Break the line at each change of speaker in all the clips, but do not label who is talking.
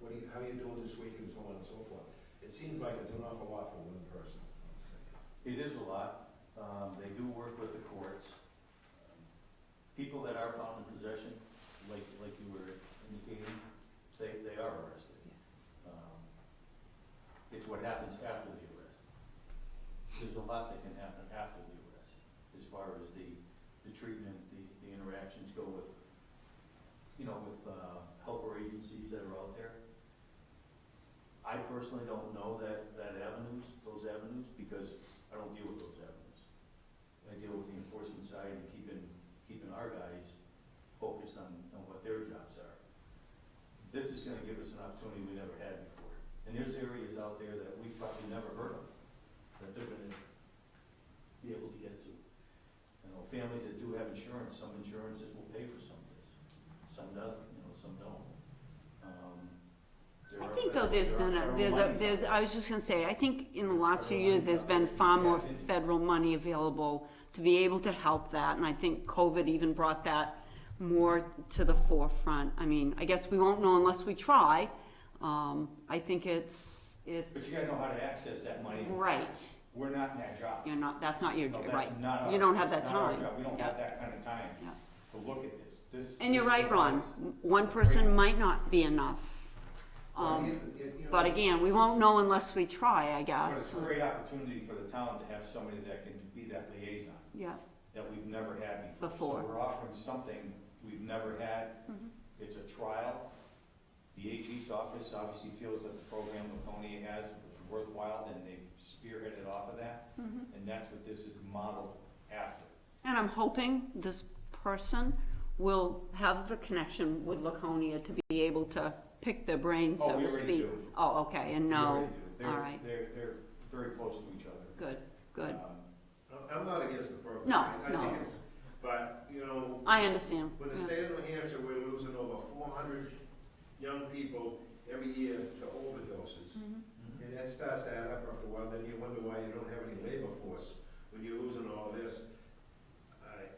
what are you, how are you doing this week and so on and so forth. It seems like it's an awful lot for one person.
It is a lot. Um, They do work with the courts. People that are found in possession, like, like you were indicating, they, they are arrested. Um, It's what happens after the arrest. There's a lot that can happen after the arrest, as far as the, the treatment, the, the interactions go with, you know, with uh, helper agencies that are out there. I personally don't know that, that avenues, those avenues, because I don't deal with those avenues. I deal with the enforcement side and keeping, keeping our guys focused on, on what their jobs are. This is gonna give us an opportunity we never had before. And there's areas out there that we've probably never heard of, that they're gonna be able to get to. You know, families that do have insurance, some insurances will pay for some of this, some doesn't, you know, some don't. Um, there
I
are
think though
federal-
there's
there
been
are federal
a, there's a,
monies out
there's,
there.
I was just gonna say, I think in the last few years, there's been far more federal money available to be able to help that, and I think COVID even brought that more to the forefront. I mean, I guess we won't know unless we try. Um, I think it's,
But
it's,
you gotta know how to access that money.
right,
We're not in that job.
you're not, that's not your,
No, that's
right.
not our-
You don't have that
that's not our
time.
job. We don't have
Yeah.
that kind of time
Yeah.
to look at this. This.
And you're
this
right, Ron,
is-
one person might not be enough. Um, but again, we won't know unless we try, I
But it's
guess,
a great opportunity for the town to have somebody that can be that liaison
yeah.
that we've never had before.
Before.
So we're offering something we've never had.
Mhm.
It's a trial. The AG's office obviously feels that the program Laconia has is worthwhile and they've spearheaded off of that.
Mhm.
And that's what this is modeled after.
And I'm hoping this person will have the connection with Laconia to be able to pick their brains,
Oh,
so
we
to
already
speak.
do.
Oh, okay, and
We
no,
already do.
all
They're-
right.
They're, they're very close to each other.
good, good.
Um,
I'm not against the program.
No,
I- I
no.
think it's- But, you know.
I understand.
When the
yeah.
state of New Hampshire, we're losing over four hundred young people every year to overdoses.
Mhm.
And that starts to add up after a while, then you wonder why you don't have any labor force when you're losing all this. I-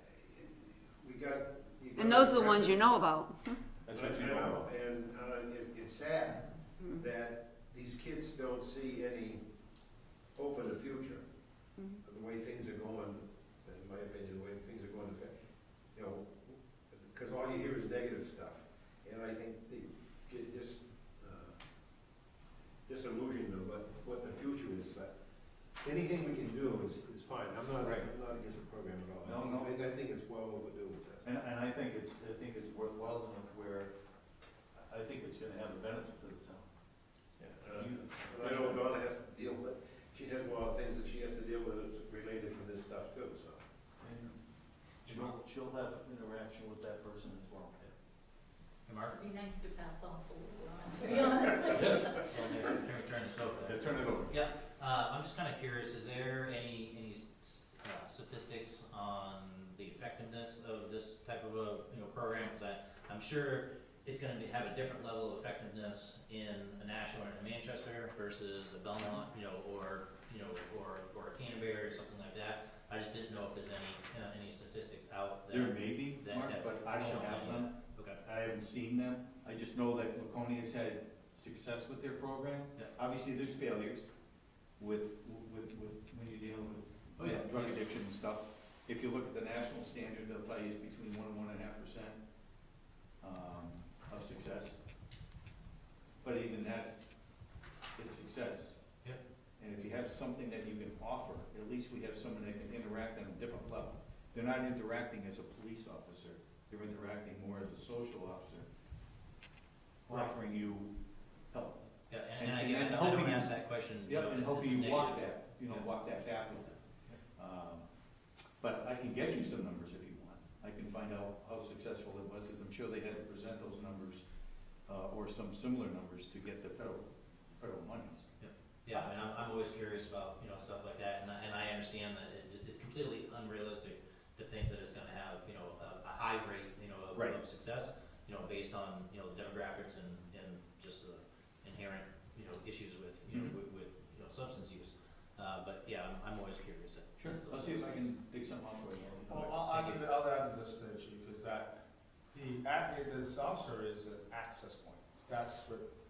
We got. you got-
And those are the ones you know about.
That's what you
I
know.
know, And, uh, it, it's sad
Mhm.
that these kids don't see any hope in the future.
Mhm.
The way things are going, in my opinion, the way things are going, you know, because all you hear is negative stuff. And I think they get this, uh, disillusioned of what, what the future is, but anything we can do is, is fine. I'm not,
Right.
I'm not against the program at all.
No, no.
I, I think it's well overdue.
And, and I think it's, I think it's worthwhile enough where, I think it's gonna have a benefit to the town.
Uh, And I know Donna has to deal with, she has a lot of things that she has to deal with that's related to this stuff too, so.
And She'll, she'll have interaction with that person as well.
It'd be nice to pass on forward, to be honest.
Can we turn this over?
turn it over.
Uh, I'm just kind of curious, is there any, any s- s- uh, statistics on the effectiveness of this type of a, you know, program? 'Cause I, I'm sure it's gonna be, have a different level of effectiveness in a Nashville or in a Manchester versus a Belmont, you know, or, you know, or, or a Canterbury or something like that. I just didn't know if there's any, uh, any statistics out
There
there.
may be,
That
Mark,
have
but I don't
shown
have
any-
them.
Okay,
I haven't seen them. I just know that Laconia's had success with their program.
Yeah.
Obviously, there's failures with, with, with, when you're dealing with
Oh, yeah.
drug addiction and stuff. If you look at the national standard, they'll tell you it's between one and one and a half percent, um, of success. But even that's, it's success.
Yeah.
And if you have something that you can offer, at least we have someone that can interact on a different level. They're not interacting as a police officer, they're interacting more as a social officer,
Right.
offering you help.
yeah,
And-
and, and I,
and
get- I
helping
don't
you-
ask that question. you know,
Yep, and
if
helping
it's
you walk
negative.
that, you know,
Yeah.
walk that path with them. Um, But I can get you some numbers if you want. I can find out how successful it was, because I'm sure they had to present those numbers, uh, or some similar numbers to get the federal, federal monies.
Yeah, I mean, I'm, I'm always curious about, you know, stuff like that, and I, and I understand that it, it's completely unrealistic to think that it's gonna have, you know, a, a high rate, you know, of,
Right.
of success, you know, based on, you know, demographics and, and just the inherent, you know, issues with, you know,
Mhm.
with, with, you know, substance use. Uh, but yeah, I'm, I'm always curious. at- at
I'll
those
see if I can
things.
dig something up for you.
Well, I'll add to, the- I'll add to this, uh, Chief, is that the, act- this officer is an access point. That's what